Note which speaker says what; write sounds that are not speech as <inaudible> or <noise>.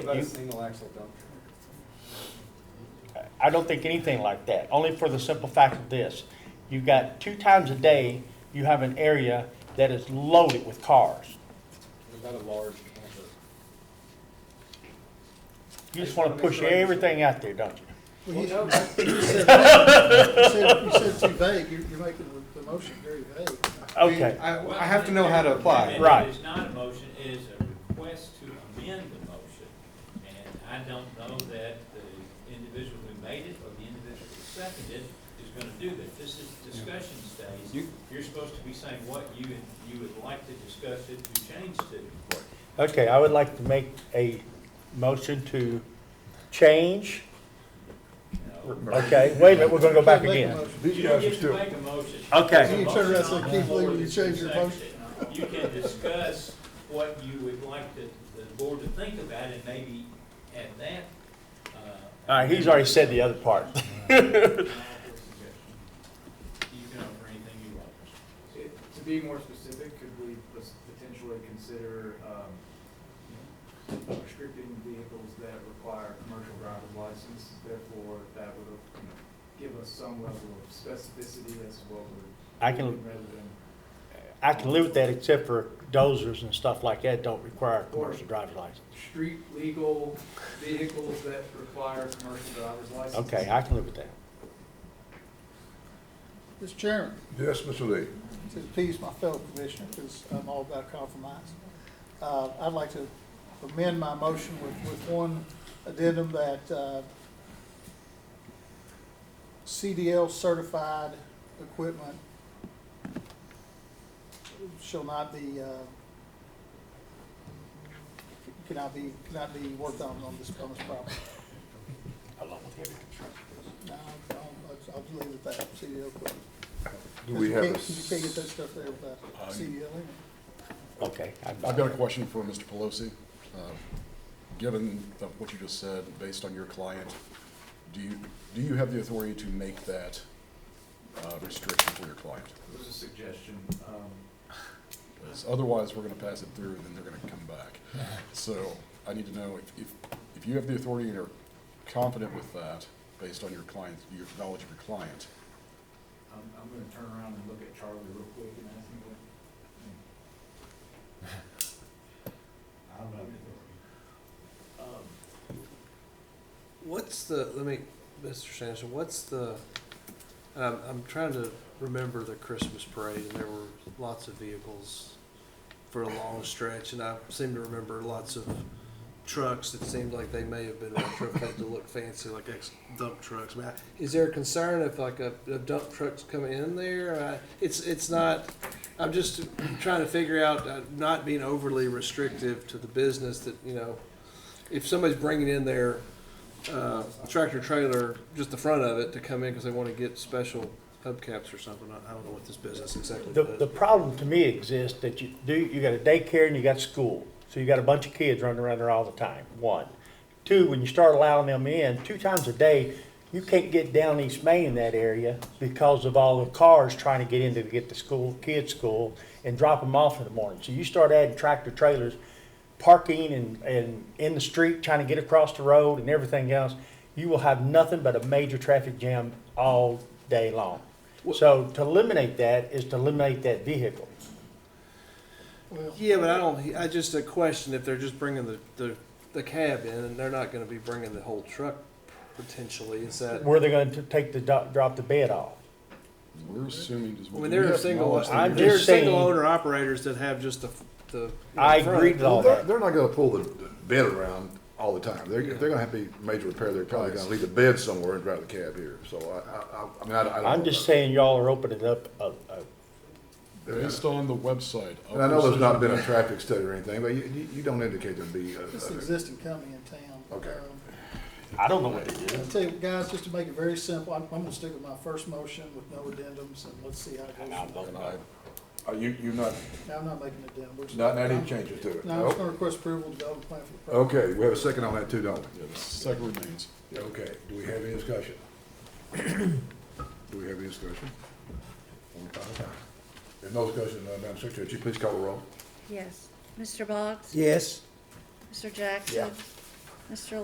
Speaker 1: about a
Speaker 2: You-
Speaker 1: single axle dump truck?
Speaker 2: I don't think anything like that, only for the simple fact of this. You've got two times a day, you have an area that is loaded with cars.
Speaker 1: What about a large camper?
Speaker 2: You just want to push everything out there, don't you?
Speaker 3: Well,
Speaker 1: Well,
Speaker 3: you-
Speaker 1: no,
Speaker 3: You
Speaker 1: that's-
Speaker 3: said- you said you said too vague, you're, you're making the, the motion very vague.
Speaker 2: Okay,
Speaker 1: I, I have to know how to apply.
Speaker 2: Right.
Speaker 4: It is not a motion, it is a request to amend the motion. And I don't know that the individual who made it or the individual who seconded it is gonna do that. This is discussion stage.
Speaker 1: You-
Speaker 4: You're supposed to be saying what you, you would like to discuss it to change to.
Speaker 2: okay, I would like to make a motion to change,
Speaker 4: No.
Speaker 2: okay, wait a minute, we're going to go back
Speaker 3: Make a
Speaker 2: again.
Speaker 3: motion.
Speaker 4: You don't get to make a motion.
Speaker 2: Okay.
Speaker 3: You turn around and say,
Speaker 4: It's on
Speaker 3: "Keith,
Speaker 4: the board
Speaker 3: Lee, you
Speaker 4: that's
Speaker 3: changed your
Speaker 4: been seconded." You can discuss what you would like the, the board to think about and maybe add that. uh,
Speaker 2: All right, he's already said the other part.
Speaker 4: <laughs> You can offer anything you want.
Speaker 5: It- To be more specific, could we pos- potentially consider um, restricting vehicles that require commercial driver's licenses? Therefore, that would you know, give us some level of specificity as to what we're
Speaker 2: I can
Speaker 5: doing rather than.
Speaker 2: I can live with that except for dozers and stuff like that don't require a commercial driver's license.
Speaker 5: Street legal vehicles that require commercial driver's licenses.
Speaker 2: Okay, I can live with that.
Speaker 3: Mr. Chairman,
Speaker 6: Yes, Mr. Lee.
Speaker 3: to appease my fellow commissioner, because I'm all about compromise, uh, I'd like to amend my motion with, with one addendum that, uh, CDL certified equipment shall not be, uh, cannot be, cannot be worked on on this, on this property.
Speaker 2: Along with heavy construction.
Speaker 3: No, I'll, I'll- I'll leave it at that, CDL equipment.
Speaker 6: Do we have a?
Speaker 3: You can't get that stuff there without CDL in it.
Speaker 2: Okay. I-
Speaker 7: I've got a question for Mr. Pelosi. Uh, Given the- what you just said, based on your client, do you, do you have the authority to make that uh, restriction for your client?
Speaker 5: It was a suggestion. um,
Speaker 7: 'Cause Otherwise, we're going to pass it through, and then they're going to come back. So I need to know if- if, if you have the authority and are confident with that, based on your client, your knowledge of your client.
Speaker 5: I'm, I'm gonna turn around and look at Charlie real quick and ask him what. <laughs> I don't know. Um,
Speaker 8: What's the, let me, Mr. Sanderson, what's the, um, I'm trying to remember the Christmas parade, and there were lots of vehicles for a long stretch, and I seem to remember lots of trucks that seemed like they may have been retrofitted to look fancy, like ex dump trucks. I mean, I- Is there a concern if like a, a dump truck's coming in there? I- It's, it's not, I'm just trying to figure out uh, not being overly restrictive to the business that, you know, if somebody's bringing in their uh, tractor trailer, just the front of it, to come in because they want to get special hubcaps or something. I I don't know what this business exactly
Speaker 2: The,
Speaker 8: does.
Speaker 2: the problem to me exists that you do, you got a daycare and you got school. So you got a bunch of kids running around there all the time, one. Two, when you start allowing them in, two times a day, you can't get down East Main in that area because of all the cars trying to get in to get to school, kids' school, and drop them off in the morning. So you start adding tractor trailers, parking and, and in the street, trying to get across the road and everything else. You will have nothing but a major traffic jam all day long. So to eliminate that is to eliminate that vehicle.
Speaker 3: Well,
Speaker 8: Yeah, but I don't, I just a question if they're just bringing the, the, the cab in and they're not going to be bringing the whole truck potentially. Is that,
Speaker 2: Where they're going to take the, do- drop the bed off.
Speaker 7: We're assuming. does-
Speaker 8: I mean,
Speaker 7: do we
Speaker 8: there are
Speaker 7: have
Speaker 8: single,
Speaker 7: knowledge that
Speaker 2: I'm
Speaker 7: you're-
Speaker 8: there are
Speaker 2: just saying-
Speaker 8: single owner operators that have just the, the. you know,
Speaker 2: I
Speaker 8: front.
Speaker 2: agree with all
Speaker 6: Well, they're,
Speaker 2: that.
Speaker 6: they're not gonna pull the the bed around all the time. They're, if they're gonna have to be major repair, they're probably gonna leave the bed somewhere and drive the cab here. So I, I, I mean, I, I don't.
Speaker 2: I'm
Speaker 6: know.
Speaker 2: just saying y'all are opening up a, a
Speaker 7: Based on the website. of
Speaker 6: And I know there's
Speaker 7: Precision
Speaker 6: not been a traffic study or anything, but you, you, you don't indicate there'd be. a-
Speaker 3: It's
Speaker 6: a-
Speaker 3: an existing company in town.
Speaker 6: Okay.
Speaker 2: I don't know what it
Speaker 3: Um,
Speaker 2: is.
Speaker 3: I tell you, guys, just to make it very simple, I'm, I'm gonna stick with my first motion with no addendums, and let's see how it
Speaker 2: And I
Speaker 3: goes.
Speaker 2: don't
Speaker 7: and
Speaker 2: know.
Speaker 7: I-
Speaker 6: Are you, you're not,
Speaker 3: No, I'm not making an addendum. We're just-
Speaker 6: not, not any changes to it?
Speaker 3: No, I'm just
Speaker 6: Nope.
Speaker 3: gonna request approval to develop a plan for the property.
Speaker 6: Okay, we have a second on that too, don't we?
Speaker 7: Yeah, the second remains.
Speaker 6: Okay, do we have any discussion? Do we have any discussion? One at a time. If no discussion, uh, Madam Secretary, would you please call the roll?
Speaker 9: Yes. Mr. Boggs?
Speaker 1: Yes.
Speaker 9: Mr. Jackson?
Speaker 6: Yeah. Mr.